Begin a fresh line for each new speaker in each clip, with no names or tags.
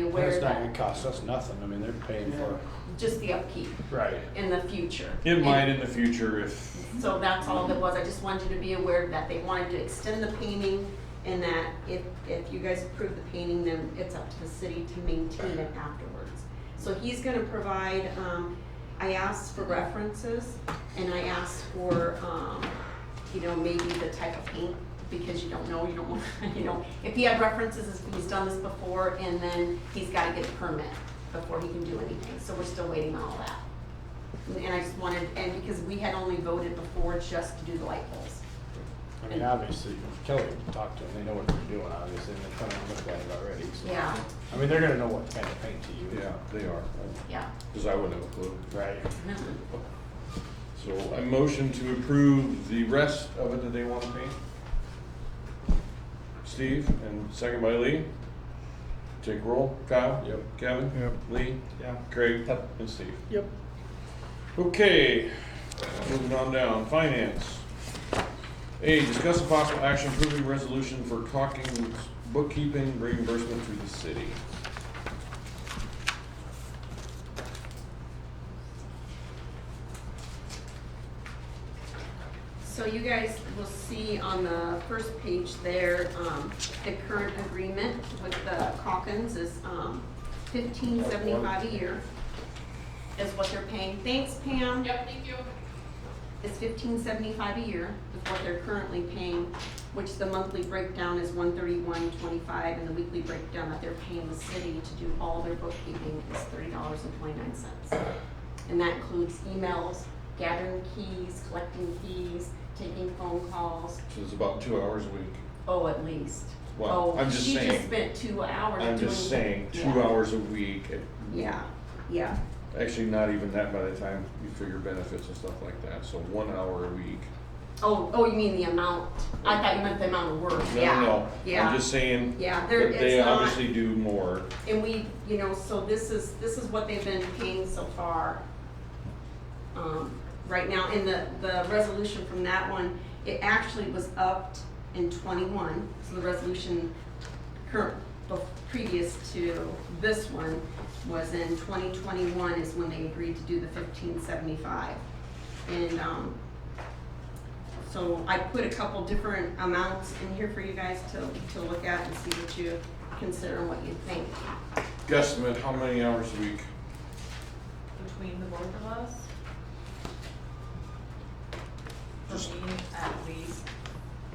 aware
That's
of
not
that.
gonna cost us nothing, I mean, they're paying for,
Just the upkeep
Right.
in the future.
It might in the future if,
So that's all that was, I just wanted you to be aware of that, they wanted to extend the painting, and that if, if you guys approve the painting, then it's up to the city to maintain it afterwards. So he's gonna provide, um, I asked for references, and I asked for, um, you know, maybe the type of paint, because you don't know, you don't, you know, if he had references, if he's done this before, and then he's gotta get a permit before he can do anything, so we're still waiting on all that. And I just wanted, and because we had only voted before just to do the light poles.
I mean, obviously, Kelly talked to them, they know what they're doing, obviously, and they kind of looked at it already, so.
Yeah,
I mean, they're gonna know what kind of paint to use.
Yeah, they are,
yeah.
because I wouldn't have a clue.
Right.
So I motion to approve the rest of it that they want to paint. Steve, and second by Lee. Take roll, Kyle?
Yep.
Kevin?
Yep.
Lee?
Yeah.
Craig?
Yep.
And Steve.
Yep.
Okay, moving on down, finance. A, discuss a possible action approving resolution for Hawkins bookkeeping reimbursement to the city.
So you guys will see on the first page there, um, the current agreement with the Calkins is, um, fifteen seventy-five a year is what they're paying. Thanks, Pam.
Yep, thank you.
is fifteen seventy-five a year is what they're currently paying, which the monthly breakdown is one thirty-one twenty-five, and the weekly breakdown that they're paying the city to do all their bookkeeping is thirty dollars and twenty-nine cents. And that includes emails, gathering keys, collecting keys, taking phone calls,
So it's about two hours a week.
oh, at least.
Well,
Oh,
I'm just
She just
saying.
spent two hours doing.
I'm just saying, two
Yeah.
hours a week, it-
Yeah, yeah,
actually not even that by the time you figure benefits and stuff like that, so one hour a week.
oh, oh, you mean the amount, I thought you meant the amount of work,
No,
yeah,
No, no,
yeah.
I'm just saying,
Yeah, there,
that
it's not.
they obviously do more.
And we, you know, so this is, this is what they've been paying so far. Um, right now, and the, the resolution from that one, it actually was upped in twenty-one, so the resolution current, the previous to this one was in twenty twenty-one is when they agreed to do the fifteen seventy-five. And, um, so I put a couple different amounts in here for you guys to, to look at and see what you consider and what you think.
Guesstimate, how many hours a week?
Between the both of us? For me, at least,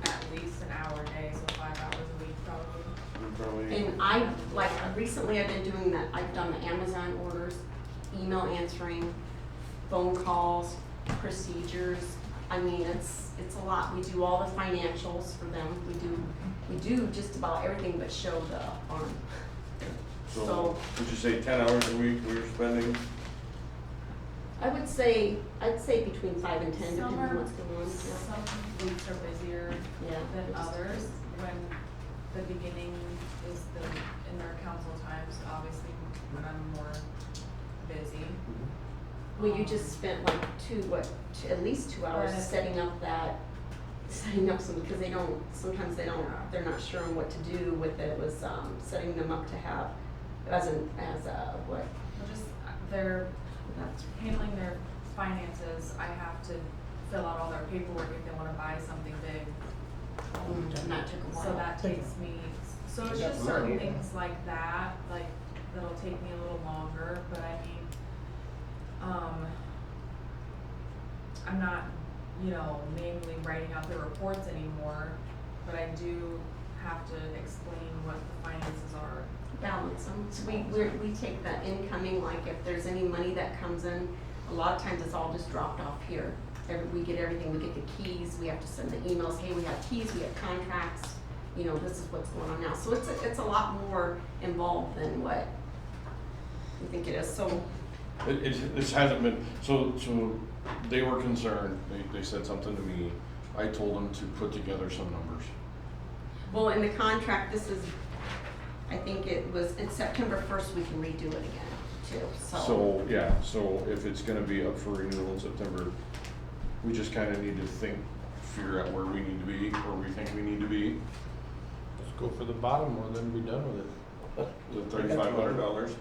at least an hour a day, so five hours a week probably.
Probably,
And I, like, recently I've been doing that, I've done the Amazon orders, email answering, phone calls, procedures. I mean, it's, it's a lot. We do all the financials for them. We do, we do just about everything but show the arm.
so, would you say ten hours a week we were spending?
I would say, I'd say between five and ten, depending on
Summer.
what's going on.
Some weeks are busier
Yeah.
than others, when the beginning is the, in their council times, obviously, when I'm more busy.
Well, you just spent like two, what, two- at least two hours
Right.
setting up that, setting up some, because they don't, sometimes they don't, they're not sure on what to do with it, was, um, setting them up to have, as an, as a, what,
Well, Just, uh, they're
that's,
handling their finances, I have to fill out all their paperwork if they wanna buy something big.
mm, that took a while.
So that takes me, so it's just certain things like that, like, that'll take me a little longer, but I mean, um, I'm not, you know, mainly writing out the reports anymore, but I do have to explain what the finances are.
balance them. So we, we're, we take the incoming, like if there's any money that comes in, a lot of times it's all just dropped off here. Every, we get everything, we get the keys, we have to send the emails, hey, we have keys, we have contracts, you know, this is what's going on now. So it's, a- it's a lot more involved than what we think it is. So,
It, it, this hasn't been, so, so they were concerned, they, they said something to me, I told them to put together some numbers.
well, in the contract, this is, I think it was, it's September first, we can redo it again too,
So, yeah, so if it's gonna be up for renewal in September, we just kinda need to think, figure out where we need to be, where we think we need to be.
Let's go for the bottom one, then be done with it.
the thirty-five hundred dollars.